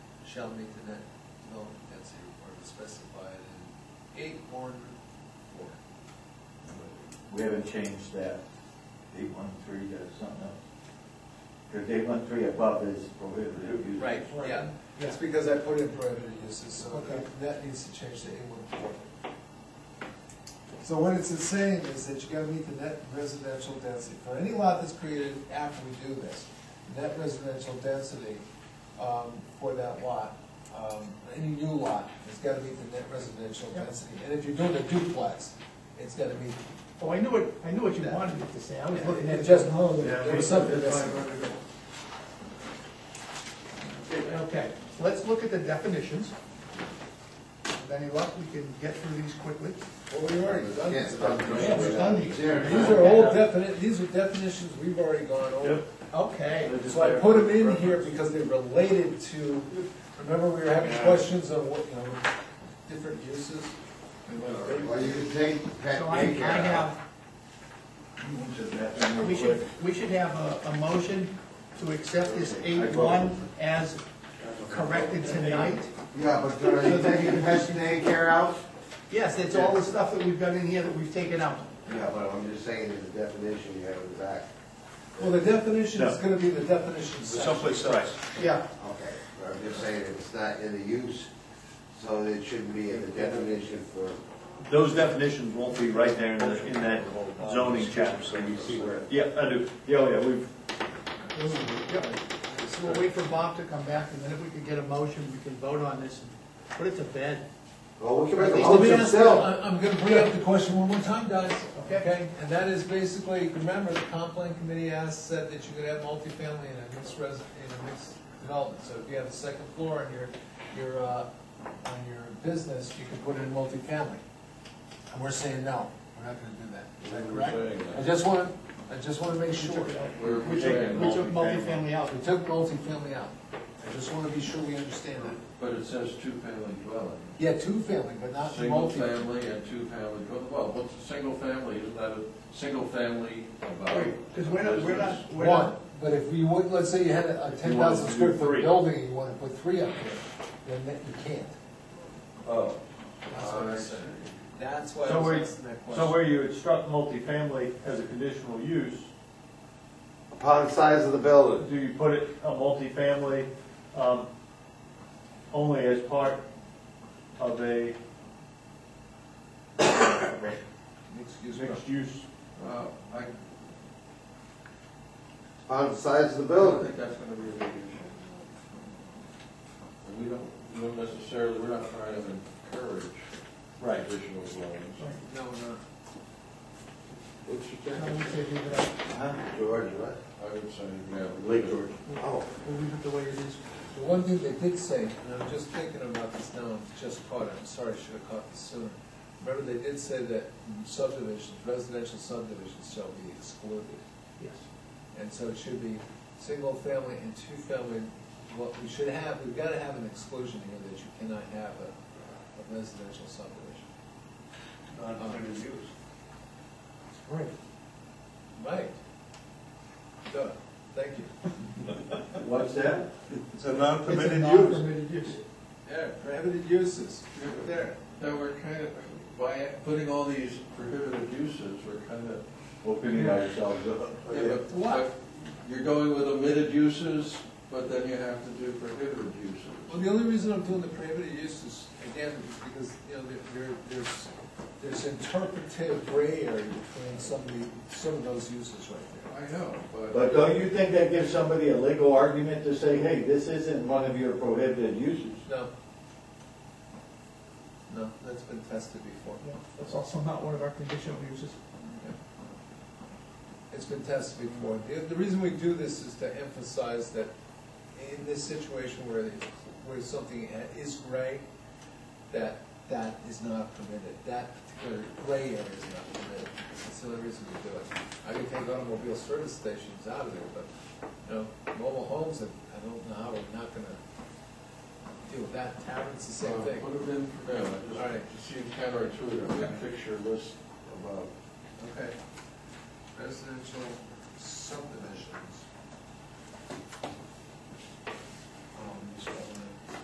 shall meet the net development density requirement specified in eight one four. We haven't changed that, eight one three to something else. Because eight one three above is prohibited use. Right, yeah, it's because I put in prohibited uses, so Okay. that needs to change to eight one four. So what it's saying is that you gotta meet the net residential density, for any lot that's created after we do this, net residential density, um, for that lot, um, any new lot, it's gotta meet the net residential density, and if you're doing a duplex, it's gotta meet, Oh, I knew what, I knew what you wanted me to say, I was looking it at just, just, there was something missing. okay, so let's look at the definitions. With any luck, we can get through these quickly. Well, we already done Can't this. stop doing Yeah, we've done it. these. These are old definite, these are definitions we've already gone over. Yep. Okay, So I put them in here because they related to, remember we were having questions on what, you know, different uses? Well, you can take so Pat I, I Baker out. have, Which is that real we should, quick. we should have a, a motion to accept this I eight vote. one as corrected tonight. Yeah, but are you taking Pat Baker out? Yes, it's all the stuff that we've got in here that we've taken out. Yeah, but I'm just saying there's a definition you have in the back. Well, the definition is No. gonna be the definition section. else. Yeah, Okay, but I'm just saying it's not in the use, so it shouldn't be in the definition for. Those definitions won't be right there in the- in that zoning chapter. Yeah, I do, yeah, oh, yeah, we've, so we'll wait for Bob to come back, and then if we can get a motion, we can vote on this and put it to bed. Well, we can make a Let me motion ask, I- still. I'm gonna bring up the question one more time, guys, Okay. okay? And that is basically, remember, the comp plan committee asked, said that you could have multifamily in a mixed res, in a mixed development. So if you have a second floor on your, your, uh, on your business, you could put in multifamily. And we're saying, no, we're not gonna do that. Is that correct? I just wanna, I just wanna make sure. We took, we took multifamily out. We took multifamily out. I just wanna be sure we understand that. But it says two-family dwelling. Yeah, two-family, but not Single multi. family and two-family dwelling, well, what's a single family, isn't that a single family about? Because we're not, we're not, we're One, not, but if you would, let's say you had a ten thousand square foot building, and you wanna put three up there, then that you can't. Oh. That's what I said. That's why I So was we're- asking that so question. where you instruct multifamily as a conditional use, Upon size of the building. do you put it, a multifamily, um, only as part of a Excuse mixed use? Uh, I, I Upon size of the don't building. think that's gonna be a big issue. And we don't, we don't necessarily, we're not trying to encourage additional dwellings. No, no. What'd you I think? would say leave it out. Huh? George, what? I would say, yeah. Uh-huh. Lake George. Oh. We'll leave it the way it is. The one thing they did say, and I'm just thinking about this now, I just caught it, I'm sorry, I should have caught this sooner. Remember, they did say that subdivisions, residential subdivisions shall be excluded. Yes. And so it should be single family and two family, what we should have, we've gotta have an exclusion here that you cannot have a, a residential subdivision. Right. Right. Duh, thank you. What's that? It's a It's a non-permitted use. non-permitted use. Yeah, prohibited uses, there. Now, we're kind of, by putting all these prohibited uses, we're kind of Opening ourselves up. Yeah, but What? You're going with omitted uses, but then you have to do prohibited Well, uses. the only reason I'm doing the prohibited uses, again, is because, you know, there, there- there's, there's interpretive gray area between some of the, some of those uses right there. I know, but uh, But don't you think that gives somebody a legal argument to say, hey, this isn't one of your prohibited uses? No. No, that's been tested before. Yeah, That's also not one of our conditional uses. It's been tested before. The, the reason we do this is to emphasize that in this situation where, the- where something ha- is gray, that, that is not permitted, that particular gray area is not permitted. That's the only reason we do it. I could take automobile service stations out of there, but, you know, mobile homes, I I don't know how, we're not gonna deal with that. Taverns, the same thing. would have been, yeah, it just seems counterintuitive, I fix your list uh, above. Okay. Residential subdivisions. Um,